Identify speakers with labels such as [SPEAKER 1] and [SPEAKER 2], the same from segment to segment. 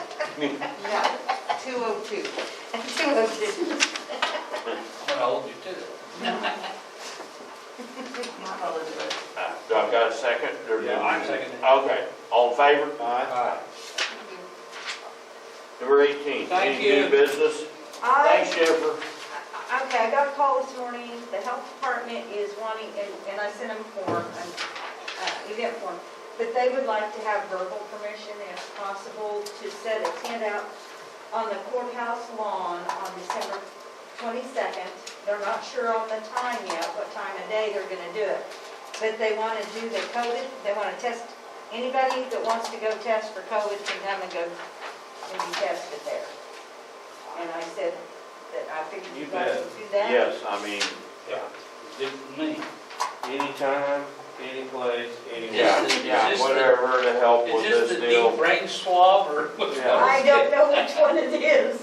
[SPEAKER 1] No, two oh two. Two oh two.
[SPEAKER 2] I'm gonna hold you to it.
[SPEAKER 3] Uh, Do I got a second? Or do-
[SPEAKER 2] Yeah, I'm seconding.
[SPEAKER 3] Okay, all in favor?
[SPEAKER 2] Aye.
[SPEAKER 3] Number eighteen,
[SPEAKER 2] Thank
[SPEAKER 3] any
[SPEAKER 2] you.
[SPEAKER 3] new business?
[SPEAKER 1] I,
[SPEAKER 3] Thanks, Jennifer.
[SPEAKER 1] okay, I got a call this morning, the health department is wanting, and, and I sent them form, an, uh, event form, but they would like to have verbal permission if possible to set a tent out on the courthouse lawn on December twenty-second. They're not sure on the time yet, what time of day they're gonna do it, but they wanna do the COVID, they wanna test, anybody that wants to go test for COVID can come and go and be tested there. And I said that I figured
[SPEAKER 2] You
[SPEAKER 1] you guys
[SPEAKER 2] bet.
[SPEAKER 1] would do that.
[SPEAKER 3] Yes, I mean,
[SPEAKER 2] Yeah. Good for me.
[SPEAKER 4] Anytime, any place, anywhere.
[SPEAKER 3] yeah,
[SPEAKER 2] Is this-
[SPEAKER 3] yeah,
[SPEAKER 2] is this the-
[SPEAKER 3] whatever to help
[SPEAKER 2] Is
[SPEAKER 3] with this
[SPEAKER 2] this the deep
[SPEAKER 3] deal.
[SPEAKER 2] brain swab or which
[SPEAKER 4] Yeah.
[SPEAKER 2] one
[SPEAKER 1] I
[SPEAKER 2] is
[SPEAKER 1] don't
[SPEAKER 2] it?
[SPEAKER 1] know which one it is,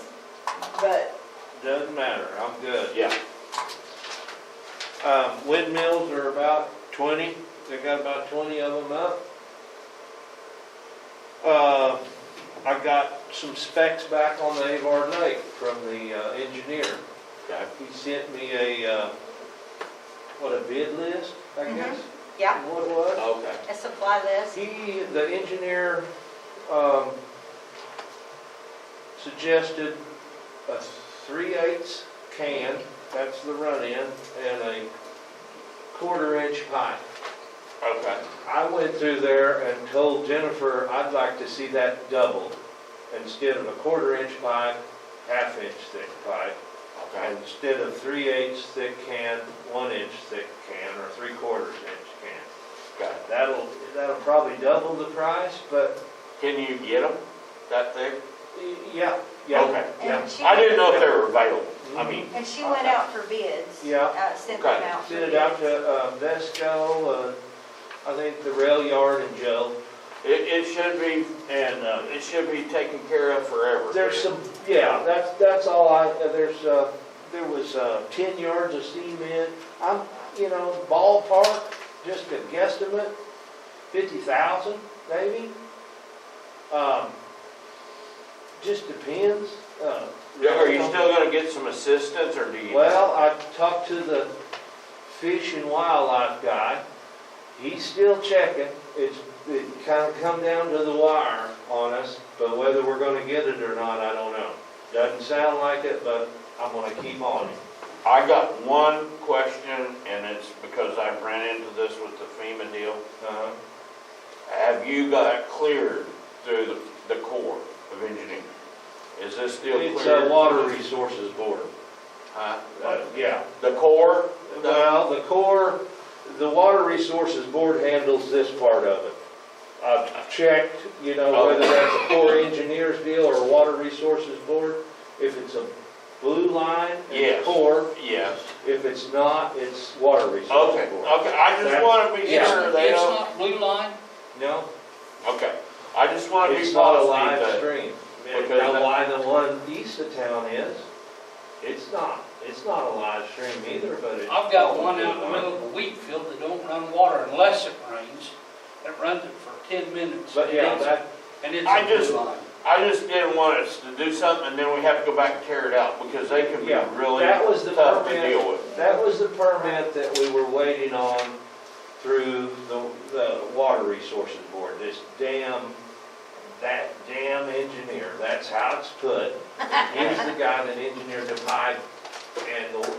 [SPEAKER 1] but
[SPEAKER 4] Doesn't matter, I'm good.
[SPEAKER 3] Yeah,
[SPEAKER 4] Um, windmills are about twenty, they got about twenty of them up. Uh, I got some specs back on the Avard Lake from the uh, engineer.
[SPEAKER 3] okay.
[SPEAKER 4] He sent me a, uh, what, a bid list, I
[SPEAKER 1] Mhm.
[SPEAKER 4] guess?
[SPEAKER 1] yeah,
[SPEAKER 4] What it was?
[SPEAKER 3] Okay.
[SPEAKER 1] a supply list.
[SPEAKER 4] He, the engineer, um, suggested a three-eighths can, that's the run-in, and a quarter-inch pipe.
[SPEAKER 3] Okay.
[SPEAKER 4] I went through there and told Jennifer, I'd like to see that doubled. Instead of a quarter-inch pipe, half-inch thick pipe,
[SPEAKER 3] Okay.
[SPEAKER 4] and instead of three-eighths thick can, one-inch thick can, or three-quarters inch can.
[SPEAKER 3] Okay.
[SPEAKER 4] That'll, that'll probably double the price, but
[SPEAKER 3] Can you get them, that thing?
[SPEAKER 4] Yeah, yeah,
[SPEAKER 3] Okay.
[SPEAKER 4] yeah.
[SPEAKER 1] And she,
[SPEAKER 3] I didn't know if they were available.
[SPEAKER 2] Mm-hmm.
[SPEAKER 3] I mean,
[SPEAKER 1] and she went out for bids.
[SPEAKER 4] Yeah.
[SPEAKER 1] Uh, Sent them
[SPEAKER 3] Okay.
[SPEAKER 1] out. for
[SPEAKER 4] Send it out
[SPEAKER 1] bids.
[SPEAKER 4] to uh, Vesco, uh, I think the rail yard and Joe.
[SPEAKER 3] it, it should be, and, uh, it should be taken care of forever.
[SPEAKER 4] There's some, yeah, that's, that's all I, uh, there's, uh, there was uh, 10 yards of cement. I'm, you know, ballpark, just a guesstimate, 50,000 maybe. Um, Just depends. uh,
[SPEAKER 3] Are you still gonna get some assistance, or do you?
[SPEAKER 4] Well, I talked to the fish and wildlife guy. He's still checking. It's, it kind of come down to the wire on us, but whether we're gonna get it or not, I don't know. Doesn't sound like it, but I'm gonna keep on it.
[SPEAKER 3] I got one question, and it's because I've ran into this with the FEMA deal.
[SPEAKER 4] Uh-huh.
[SPEAKER 3] Have you got it cleared through the, the Corps of Engineering? Is this still cleared?
[SPEAKER 4] It's a water resources board.
[SPEAKER 3] Huh?
[SPEAKER 4] Uh, Yeah. Uh,
[SPEAKER 3] The Corps?
[SPEAKER 4] Well, the Corps, the water resources board handles this part of it. I've checked, you
[SPEAKER 3] Oh.
[SPEAKER 4] know, whether that's a Corps engineers deal or a water resources board. If it's a blue line,
[SPEAKER 3] Yes.
[SPEAKER 4] it's Corps.
[SPEAKER 3] Yes.
[SPEAKER 4] If it's not, it's water
[SPEAKER 3] Okay,
[SPEAKER 4] resources board.
[SPEAKER 3] okay, I just wanna be
[SPEAKER 4] Yeah.
[SPEAKER 3] sure they
[SPEAKER 2] It's
[SPEAKER 3] don't,
[SPEAKER 2] not blue line?
[SPEAKER 4] No,
[SPEAKER 3] okay. I just wanna be
[SPEAKER 4] it's not a
[SPEAKER 3] positive
[SPEAKER 4] live
[SPEAKER 3] that,
[SPEAKER 4] stream.
[SPEAKER 3] because
[SPEAKER 4] Now,
[SPEAKER 3] that-
[SPEAKER 4] why the one east of town is, it's not, it's not a live stream either, but it's.
[SPEAKER 2] I've got one out in the middle of a wheat field that don't run water unless it rains. It runs it for ten minutes.
[SPEAKER 4] But
[SPEAKER 2] and
[SPEAKER 4] yeah,
[SPEAKER 2] it's-
[SPEAKER 4] that,
[SPEAKER 2] And it's
[SPEAKER 3] I
[SPEAKER 2] a
[SPEAKER 3] just-
[SPEAKER 2] blue line.
[SPEAKER 3] I just didn't want us to do something and then we have to go back and tear it out, because they can be
[SPEAKER 4] Yeah,
[SPEAKER 3] really
[SPEAKER 4] that was the
[SPEAKER 3] tough to
[SPEAKER 4] permit.
[SPEAKER 3] deal with.
[SPEAKER 4] That was the permit that we were waiting on through the, the Water Resources Board, this damn, that damn engineer, that's how it's put. He's the guy that engineered the pipe and the, he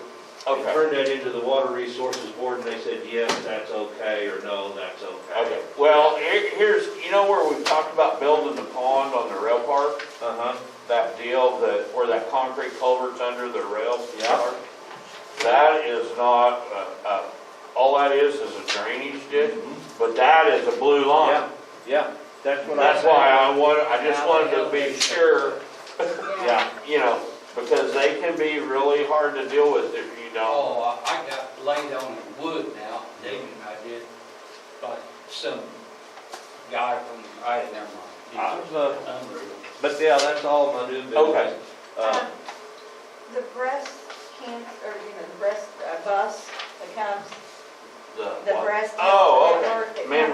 [SPEAKER 3] Okay,
[SPEAKER 4] turned that into the Water Resources Board and they said, yes, that's okay, or no, that's okay.
[SPEAKER 3] okay. Well, here- here's, you know where we've talked about building the pond on the rail park?
[SPEAKER 4] Uh-huh,
[SPEAKER 3] that deal, that, where that concrete culvert's under the rail
[SPEAKER 4] Yeah.
[SPEAKER 3] yard, that is not, uh, uh, all that is is a drainage ditch, but that is a blue line.
[SPEAKER 4] yeah, yeah, that's what I
[SPEAKER 3] That's
[SPEAKER 4] said.
[SPEAKER 3] why I want, I just
[SPEAKER 2] How
[SPEAKER 3] wanted
[SPEAKER 2] the
[SPEAKER 3] to
[SPEAKER 2] hell they
[SPEAKER 3] be
[SPEAKER 2] fix
[SPEAKER 3] sure,
[SPEAKER 4] Yeah,
[SPEAKER 3] you know, because they can be really hard to deal with if you don't.
[SPEAKER 2] Oh, I- I got laid on in wood now, David and I did, by some guy from, I, never
[SPEAKER 4] I
[SPEAKER 2] mind.
[SPEAKER 4] was, uh,
[SPEAKER 2] Unreal.
[SPEAKER 4] but yeah, that's all my new business.
[SPEAKER 3] Okay.
[SPEAKER 4] Uh,
[SPEAKER 1] Um, The breast cancer, or, you know, the breast uh, bus that comes, the
[SPEAKER 3] what?
[SPEAKER 1] breast.
[SPEAKER 3] Oh, okay.
[SPEAKER 1] cancer network that
[SPEAKER 3] Man,
[SPEAKER 1] comes